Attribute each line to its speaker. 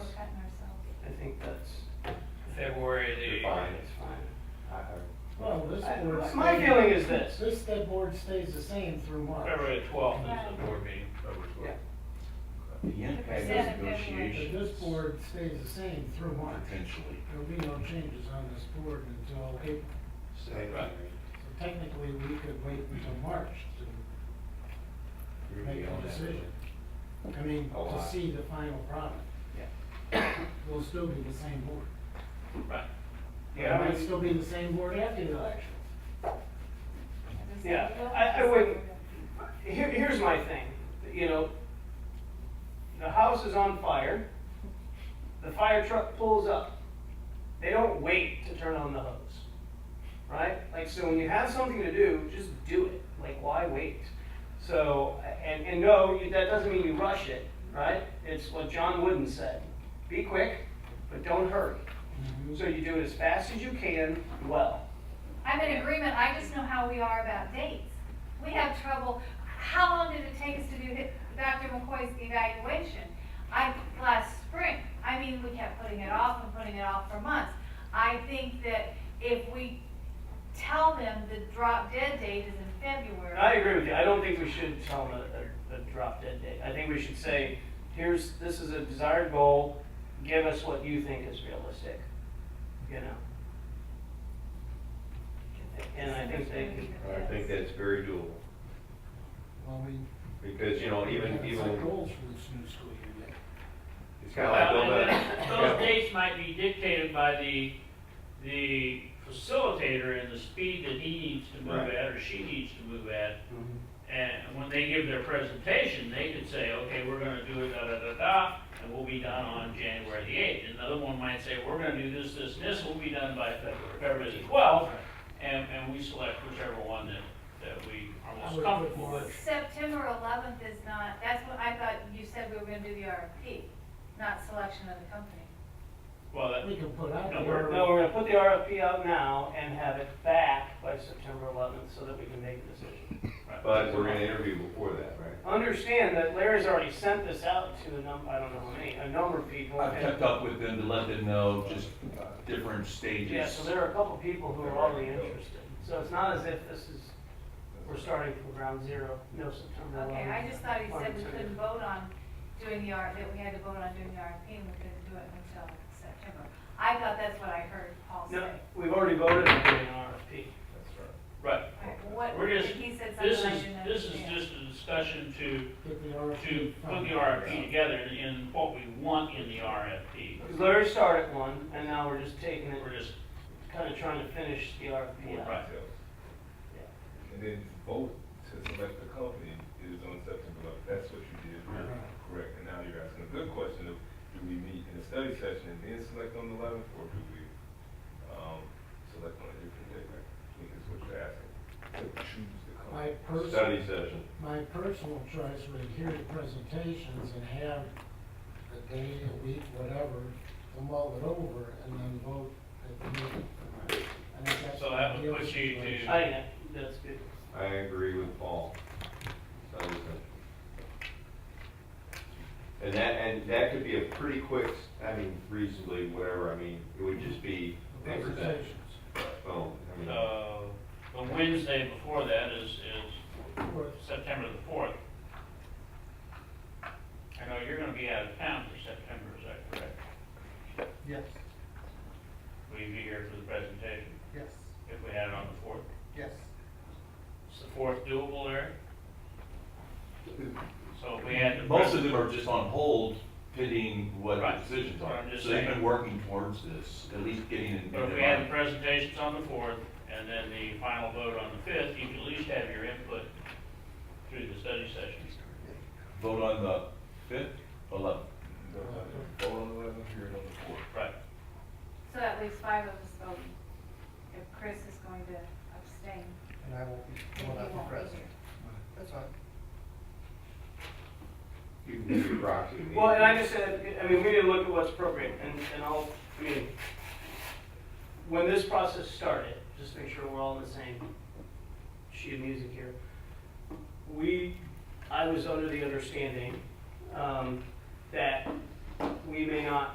Speaker 1: that board
Speaker 2: My
Speaker 1: stays-
Speaker 2: feeling is this.
Speaker 1: This, that board stays the same through March.
Speaker 3: February twelfth is
Speaker 4: Right.
Speaker 3: the board meeting, February
Speaker 2: Yeah.
Speaker 3: twelfth.
Speaker 5: The impact
Speaker 4: Percent
Speaker 5: of
Speaker 4: of
Speaker 1: But
Speaker 5: negotiations.
Speaker 1: this board stays the same through March.
Speaker 5: Potentially.
Speaker 1: There'll be no changes on this board until April.
Speaker 3: Right.
Speaker 1: So technically, we could wait until March to make a decision. I mean,
Speaker 5: A
Speaker 1: to
Speaker 5: lot.
Speaker 1: see the final product.
Speaker 2: Yeah.
Speaker 1: We'll still be the same board.
Speaker 3: Right.
Speaker 2: Yeah, I
Speaker 1: It might
Speaker 2: mean,
Speaker 1: still be the same board after the election.
Speaker 2: Yeah, I- I wouldn't- here, here's my thing, you know, the house is on fire, the fire truck pulls up. They don't wait to turn on the hose, right? Like, so when you have something to do, just do it. Like, why wait? So, and, and no, you- that doesn't mean you rush it, right? It's what John Wooden said, be quick, but don't hurry. So you do it as fast as you can, well.
Speaker 4: I'm in agreement, I just know how we are about dates. We have trouble, how long did it take us to do hi- Dr. McCoy's evaluation? I, last spring, I mean, we kept putting it off and putting it off for months. I think that if we tell them the drop dead date is in February.
Speaker 2: I agree with you. I don't think we should tell them a, a, a drop dead date. I think we should say, here's, this is a desired goal, give us what you think is realistic, you know? And I think they could,
Speaker 5: I think that's very doable,
Speaker 1: Well, we.
Speaker 5: because, you know, even,
Speaker 1: we have set
Speaker 5: even,
Speaker 1: Goals for this new school year. yet.
Speaker 5: it's kinda like
Speaker 3: Well, and
Speaker 5: building. a-
Speaker 3: then Those dates might be dictated by the, the facilitator and the speed that he needs to move
Speaker 5: Right.
Speaker 3: at, or she needs to move at. And when they give their presentation, they could say, okay, we're gonna do it da-da-da-da, and we'll be done on January the eighth. Another one might say, we're gonna do this, this, and this, we'll be done by February, February the twelfth, and, and we select whichever one that, that we are
Speaker 1: I
Speaker 3: most
Speaker 1: would
Speaker 3: comfortable
Speaker 1: put
Speaker 3: with.
Speaker 4: September eleventh is not, that's what I thought you said we were gonna do the RFP, not selection of the company.
Speaker 3: Well, that,
Speaker 1: We can put out.
Speaker 3: No,
Speaker 1: the
Speaker 3: we're-
Speaker 2: no, we're gonna put the RFP out now and have it back by September eleventh so that we can make a decision.
Speaker 3: right.
Speaker 5: But we're gonna interview before that, right?
Speaker 2: Understand that Larry's already sent this out to a num, I don't know how many, a number of people.
Speaker 6: I've kept up with them to let them know just uh, different stages.
Speaker 2: Yeah, so there are a couple people who are already interested. So it's not as if this is, we're starting from ground zero, no September
Speaker 4: Okay, I just thought he said we
Speaker 2: Fine.
Speaker 4: couldn't vote on doing the R, that we had to vote on doing the RFP and we couldn't do it until September. I thought that's what I heard Paul
Speaker 2: No,
Speaker 4: say.
Speaker 2: we've already voted on doing an RFP.
Speaker 3: Right,
Speaker 4: I- What,
Speaker 3: We're just-
Speaker 4: he said
Speaker 3: this
Speaker 4: something I
Speaker 3: is,
Speaker 4: didn't understand.
Speaker 3: this is just a discussion to
Speaker 1: Get the RFP.
Speaker 3: to put
Speaker 1: from-
Speaker 3: the RFP together in what we want in the RFP.
Speaker 2: 'Cause Larry started one, and now we're just taking it,
Speaker 3: We're just,
Speaker 2: kind of trying to finish the RFP out.
Speaker 3: Right.
Speaker 7: And then vote to select the company is on September eleventh, that's what you did, correct? And now you're asking a good question of, do we meet in a study session and then select on the eleventh, or do we, um, select on a different day, right? I think is what you're asking, to choose the
Speaker 1: My
Speaker 7: company.
Speaker 1: personal,
Speaker 5: Study session.
Speaker 1: my personal choice would hear the presentations and have a day, a week, whatever, to mull it over and then vote at the meeting. I think that's
Speaker 3: So
Speaker 1: the
Speaker 3: that would
Speaker 1: ideal
Speaker 3: put you to-
Speaker 1: situation.
Speaker 2: I think that- that's good.
Speaker 5: I agree with Paul. Study session. And that, and that could be a pretty quick, I mean, reasonably, whatever, I mean, it would just be,
Speaker 1: The
Speaker 5: they present,
Speaker 1: Presentations.
Speaker 5: boom, I mean.
Speaker 3: uh, the Wednesday before that is, is
Speaker 1: Or-
Speaker 3: September the fourth. I know you're gonna be out of town for September, is that correct?
Speaker 8: Yes,
Speaker 3: Will you be here for the presentation
Speaker 8: yes,
Speaker 3: if we had it on the fourth?
Speaker 8: yes.
Speaker 3: Is the fourth doable, Larry? So if we had the.
Speaker 6: Most of them are just on hold pending what the
Speaker 3: Right.
Speaker 6: decisions
Speaker 3: What
Speaker 6: are.
Speaker 3: I'm just
Speaker 6: So they've
Speaker 3: saying.
Speaker 6: been working towards this, at least getting it in
Speaker 3: But if
Speaker 6: their
Speaker 3: we had the
Speaker 6: mind.
Speaker 3: presentations on the fourth, and then the final vote on the fifth, you could at least have your input through the study sessions.
Speaker 6: Vote on the fifth, eleventh.
Speaker 7: Vote on the eleventh, hear it on the fourth.
Speaker 3: Right.
Speaker 4: So that leaves five of us voting. If Chris is going to abstain,
Speaker 8: And I won't be,
Speaker 4: then
Speaker 8: will
Speaker 4: he
Speaker 8: not
Speaker 4: won't
Speaker 8: be
Speaker 4: be
Speaker 8: present.
Speaker 4: here.
Speaker 8: That's fine.
Speaker 5: You can do your proxy. meeting.
Speaker 2: Well, and I just said, I mean, we need to look at what's appropriate, and, and I'll, I mean, when this process started, just make sure we're all on the same sheet of music here. We, I was under the understanding, um, that we may not